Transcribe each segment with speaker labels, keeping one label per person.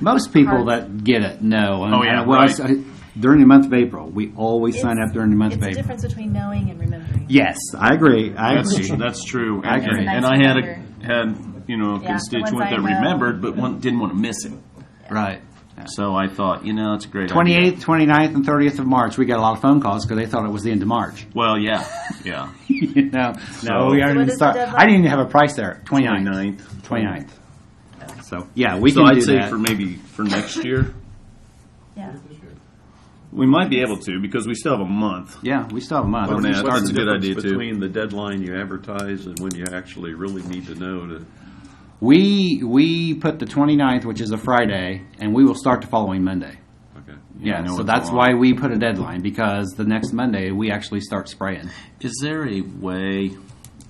Speaker 1: Most people that get it know. and-
Speaker 2: Oh, yeah,
Speaker 1: and what I
Speaker 2: right.
Speaker 1: say- During the month of April, we always sign
Speaker 3: It's-
Speaker 1: up during the month of
Speaker 3: It's the
Speaker 1: April.
Speaker 3: difference between knowing and remembering.
Speaker 1: Yes, I agree, I
Speaker 2: That's,
Speaker 1: agree.
Speaker 2: that's true.
Speaker 1: I
Speaker 2: And,
Speaker 1: agree.
Speaker 2: and- and I had a, had, you know, a
Speaker 3: the ones
Speaker 2: constituent
Speaker 3: I
Speaker 2: that
Speaker 3: know.
Speaker 2: remembered, but one, didn't want to miss it.
Speaker 1: Right.
Speaker 2: So I thought, you know, it's a great idea.
Speaker 1: 28th, 29th, and 30th of March, we got a lot of phone calls because they thought it was the end of March.
Speaker 2: Well, yeah, yeah.
Speaker 1: You know, no, we
Speaker 2: So-
Speaker 3: So
Speaker 1: aren't
Speaker 3: what
Speaker 1: even
Speaker 3: is the
Speaker 1: start. I
Speaker 3: deadline?
Speaker 1: didn't even have a price there, 29th.
Speaker 2: 29th.
Speaker 1: 29th. So, yeah, we
Speaker 2: So
Speaker 1: can
Speaker 2: I'd
Speaker 1: do
Speaker 2: say for
Speaker 1: that.
Speaker 2: maybe for next year,
Speaker 3: Yeah.
Speaker 2: we might be able to because we still have a month.
Speaker 1: Yeah, we still have a month.
Speaker 4: Well,
Speaker 1: We can
Speaker 4: Nat,
Speaker 1: start
Speaker 4: What's
Speaker 2: That's
Speaker 4: the
Speaker 2: a good
Speaker 4: difference
Speaker 2: idea, too.
Speaker 4: between the deadline you advertise and when you actually really need to know to?
Speaker 1: We, we put the 29th, which is a Friday, and we will start the following Monday.
Speaker 4: Okay.
Speaker 1: Yeah,
Speaker 2: know
Speaker 1: so
Speaker 2: it's
Speaker 1: that's
Speaker 2: long.
Speaker 1: why we put a deadline because the next Monday we actually start spraying.
Speaker 2: Is there a way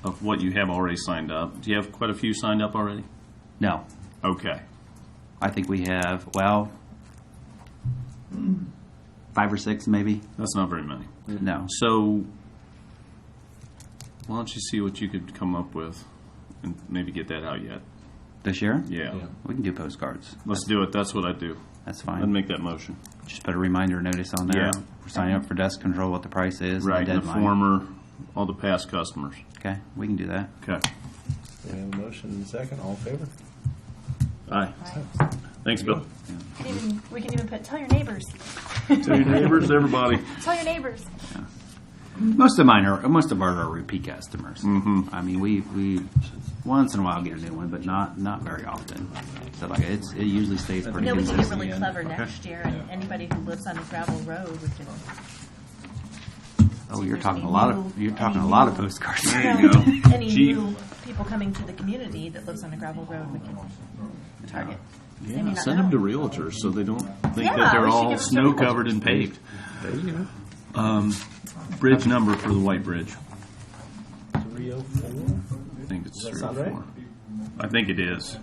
Speaker 2: of what you have already signed up? Do you have quite a few signed up already?
Speaker 1: No,
Speaker 2: Okay.
Speaker 1: I think we have, well, five or six maybe.
Speaker 2: That's not very many.
Speaker 1: No.
Speaker 2: So, why don't you see what you could come up with and maybe get that out yet?
Speaker 1: This year?
Speaker 2: Yeah.
Speaker 1: We can do postcards.
Speaker 2: Let's do it. That's what I do.
Speaker 1: That's
Speaker 2: I'd
Speaker 1: fine.
Speaker 2: make that motion.
Speaker 1: Just put a reminder notice on there.
Speaker 2: Yeah.
Speaker 1: We're Signing up for dust control, what the price is. and
Speaker 2: Right.
Speaker 1: The
Speaker 2: and The
Speaker 1: deadline.
Speaker 2: former, all the past customers.
Speaker 1: Okay, we can do that.
Speaker 2: Okay.
Speaker 5: We have a motion and a second, all in favor?
Speaker 2: Aye. Thanks, Bill.
Speaker 3: We can even- We can even put, tell your neighbors,
Speaker 2: To your neighbors, everybody.
Speaker 3: tell your neighbors.
Speaker 1: Most of mine are, most of ours are repeat customers. Mm-hmm. I mean, we, we, once in a while get a new one, but not, not very often. So like, it's, it usually stays pretty
Speaker 3: No, we can
Speaker 1: consistent.
Speaker 3: get really clever next year, and anybody who lives on a gravel road, we can.
Speaker 1: Oh,
Speaker 3: See
Speaker 1: you're
Speaker 3: if there's
Speaker 1: talking a
Speaker 3: any
Speaker 1: lot
Speaker 3: new-
Speaker 1: of, you're
Speaker 3: any
Speaker 1: talking a lot of
Speaker 3: new-
Speaker 1: postcards.
Speaker 2: you go.
Speaker 3: No, Any
Speaker 2: Cheap.
Speaker 3: new people coming to the community that lives on a gravel road, we can target. They may
Speaker 2: Yeah,
Speaker 3: not
Speaker 2: send them
Speaker 3: know.
Speaker 2: to realtors so they don't think
Speaker 3: Yeah,
Speaker 2: that they're
Speaker 3: we should
Speaker 2: all
Speaker 3: give 'em to
Speaker 2: snow
Speaker 3: realtors.
Speaker 2: covered and paved.
Speaker 4: There you go.
Speaker 2: Um, Bridge number for the White Bridge.
Speaker 5: Three oh four?
Speaker 2: I think it's three or
Speaker 5: sound right?
Speaker 2: four. I think it is.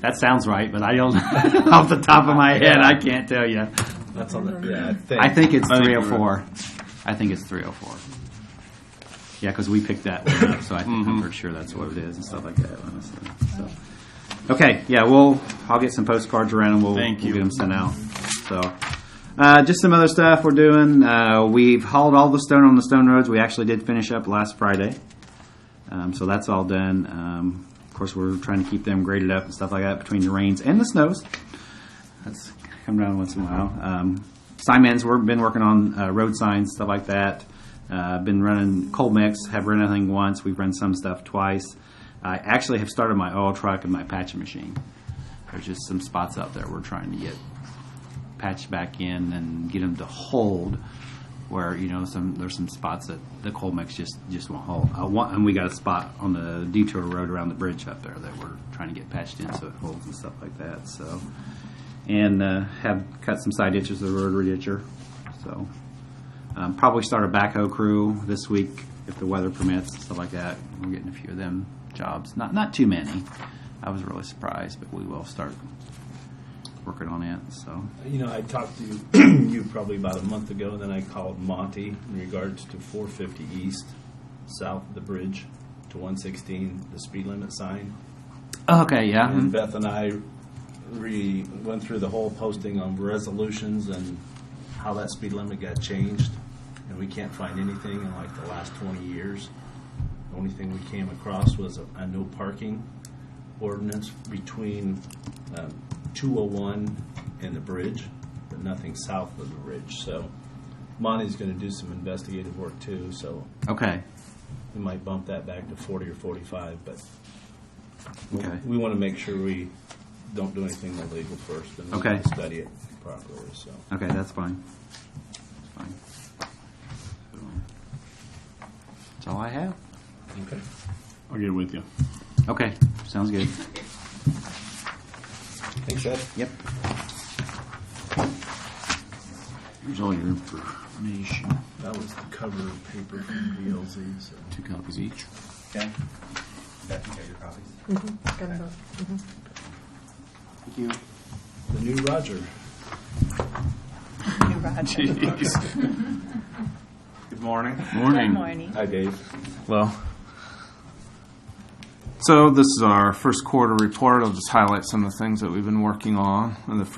Speaker 1: That sounds right, but I don't, off the top of my head, I can't tell you.
Speaker 5: That's on the, yeah, I think.
Speaker 1: I think it's
Speaker 2: I think
Speaker 1: three
Speaker 2: you're
Speaker 1: oh four. I think it's three oh four. Yeah, because we picked that one up, so I think
Speaker 2: Mm-hmm.
Speaker 1: I'm pretty sure that's what it is and stuff like that, honestly. So. Okay, yeah, we'll, I'll get some postcards around and we'll,
Speaker 2: Thank
Speaker 1: we'll
Speaker 2: you.
Speaker 1: get them sent out. So, uh, just some other stuff we're doing. Uh, we've hauled all the stone on the stone roads. We actually did finish up last Friday. Um, so that's all done. Um, of course, we're trying to keep them graded up and stuff like that between the rains and the snows. That's come down once in a while. Um, Simon's, we've been working on uh, road signs, stuff like that. Uh, been running cold mix, have run anything once. We've run some stuff twice. I actually have started my oil truck and my patching machine. There's just some spots out there we're trying to get patched back in and get them to hold. Where you know some there's some spots that the cold mix just just won't hold. I want, and we got a spot on the detour road around the bridge up there that we're trying to get patched in so it holds and stuff like that. So and uh, have cut some side ditches of the rotary ditcher. So um, probably start a backhoe crew this week if the weather permits, stuff like that. We're getting a few of them jobs. Not not too many. I was really surprised, but we will start working on it. So
Speaker 5: You know, I talked to you, you probably about a month ago, and then I called Monty in regards to four fifty east, south of the bridge to one sixteen, the speed limit sign.
Speaker 1: okay, yeah, mm,
Speaker 5: And Beth and I re, went through the whole posting on resolutions and how that speed limit got changed. And we can't find anything in like the last twenty years. The only thing we came across was a, a no parking ordinance between, um, two oh one and the bridge, but nothing south of the bridge, so. Monty's gonna do some investigative work too, so
Speaker 1: okay,
Speaker 5: we might bump that back to forty or forty-five, but
Speaker 1: okay.
Speaker 5: we want to make sure we don't do anything illegal first, and we
Speaker 1: Okay.
Speaker 5: want to study it properly, so.
Speaker 1: Okay, that's fine. That's fine. That's all I have.
Speaker 5: Okay.
Speaker 2: I'll get with you.
Speaker 1: Okay, sounds good.
Speaker 5: Thanks, Ed.
Speaker 1: Yep.
Speaker 2: Here's all your information.
Speaker 5: That was the cover paper from BLZ, so.
Speaker 2: Two copies each.
Speaker 6: Okay. Beth, you got your copies?
Speaker 1: Thank you.
Speaker 5: The new Roger.
Speaker 3: New Roger.
Speaker 6: Good morning.
Speaker 3: Good
Speaker 2: Morning.
Speaker 3: morning.
Speaker 5: Hi, Dave.
Speaker 6: Hello.
Speaker 7: So this is our first quarter report. I'll just highlight some of the things that we've been working on in the